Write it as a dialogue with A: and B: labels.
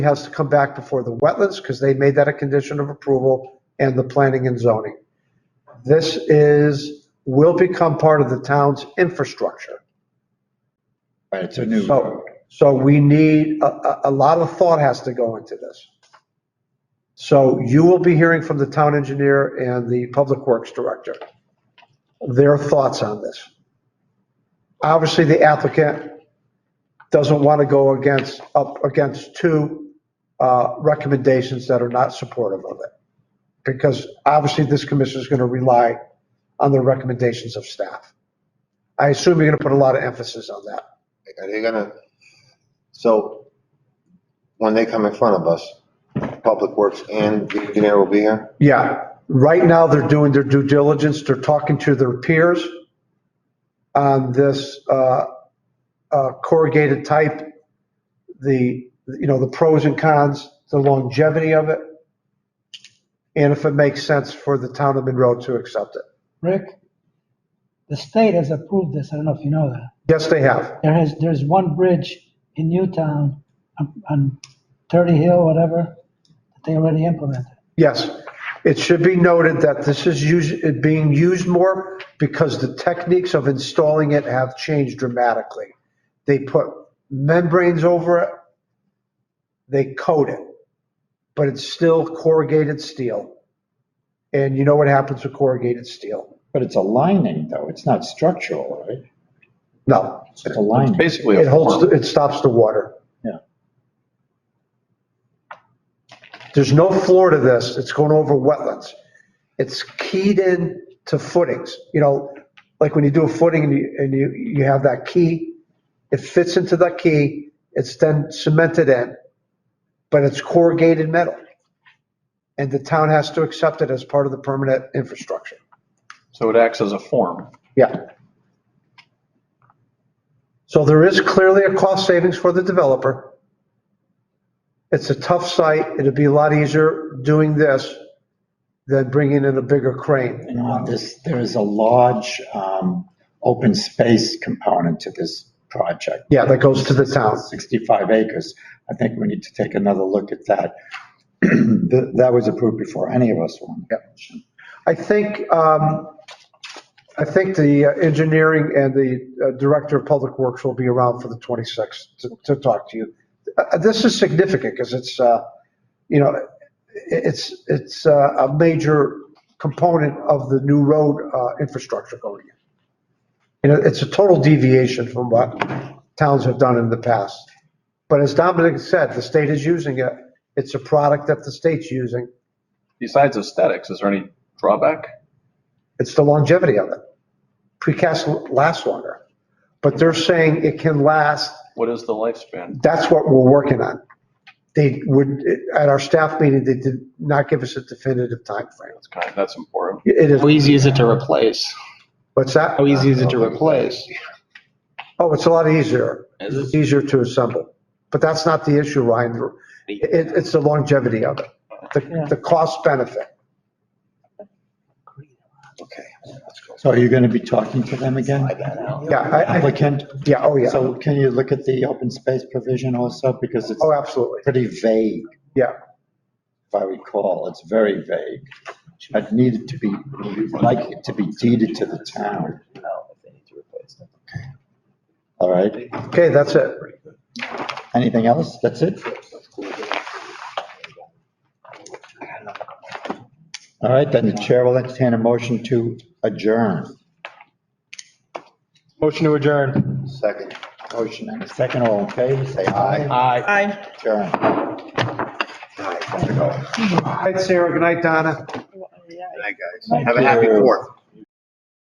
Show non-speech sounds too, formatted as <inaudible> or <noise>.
A: He has to come back before the wetlands because they made that a condition of approval and the planning and zoning. This is, will become part of the town's infrastructure.
B: Right, it's a new
A: So,
B: road.
A: so we need, a, a, a lot of thought has to go into this. So you will be hearing from the town engineer and the public works director, their thoughts on this. Obviously, the applicant doesn't want to go against, up against two, uh, recommendations that are not supportive of it. Because obviously, this commission is going to rely on the recommendations of staff. I assume you're going to put a lot of emphasis on that.
C: Are they gonna, so when they come in front of us, Public Works and the engineer will be here?
A: Yeah, right now they're doing their due diligence, they're talking to their peers on this uh, uh, corrugated type, the, you know, the pros and cons, the longevity of it, and if it makes sense for the town of Monroe to accept it.
D: Rick, the state has approved this, I don't know if you know that.
A: Yes, they have.
D: There has, there's one bridge in Newtown on- on Thirty Hill, whatever, that they already implemented.
A: Yes, it should be noted that this is used, it being used more because the techniques of installing it have changed dramatically. They put membranes over it, they coat it, but it's still corrugated steel. And you know what happens with corrugated steel?
B: But it's a lining though, it's not structural, right?
A: No,
B: It's a lining.
E: Basically,
A: it
E: a
A: holds,
E: farm.
A: the- it stops the water.
B: Yeah.
A: There's no floor to this, it's going over wetlands. It's keyed in to footings, you know, like when you do a footing and you, and you, you have that key, it fits into that key, it's then cemented in, but it's corrugated metal. And the town has to accept it as part of the permanent infrastructure.
E: so it acts as a form.
A: Yeah. So there is clearly a cost savings for the developer. It's a tough site. It'd be a lot easier doing this than bringing in a bigger crane.
B: And on this, there is a large, um, open space component to this project.
A: Yeah, that goes to the town.
B: 65 acres. I think we need to take another look at that. <clears throat> That that was approved before any of us were on the commission.
A: I think, um, I think the uh, engineering and the uh, director of public works will be around for the 26th to, to talk to you. Uh, This is significant because it's, uh, you know, i- it's, it's uh, a major component of the new road, uh, infrastructure going in. You know, it's a total deviation from what towns have done in the past. But as Dominic said, the state is using it. It's a product that the state's using.
E: Besides aesthetics, is there any drawback?
A: It's the longevity of it. Precast lasts longer, but they're saying it can last,
E: What is the lifespan?
A: that's what we're working on. They would, at our staff meeting, they did not give us a definitive timeframe.
E: That's kind, that's important.
A: It is,
F: How easy is it to replace?
A: what's that?
F: How easy is it to replace?
A: Oh, it's a lot easier.
F: Is it?
A: It's easier to assemble, but that's not the issue, Ryan. It, it's the longevity of it, the,
D: Yeah.
A: the cost benefit.
C: Okay, let's go.
B: So are you going to be talking to them again?
A: Yeah, I, I,
B: Applicant?
A: yeah, oh, yeah.
B: So can you look at the open space provision also? Because it's
A: Oh, absolutely.
B: pretty vague,
A: Yeah.
B: if I recall. It's very vague. I'd need it to be, like it to be deeded to the town. All right.
A: Okay, that's it.
B: Anything else? That's it? All right, then the chair will entertain a motion to adjourn.
F: Motion to adjourn.
C: Second.
B: Motion and a second. All in favor, say aye.
F: Aye.
B: Adjourn.
C: All right, gotta go.
A: Good night, Sarah. Good night, Donna.
C: Good night, guys. Have a happy
B: you.
C: fourth.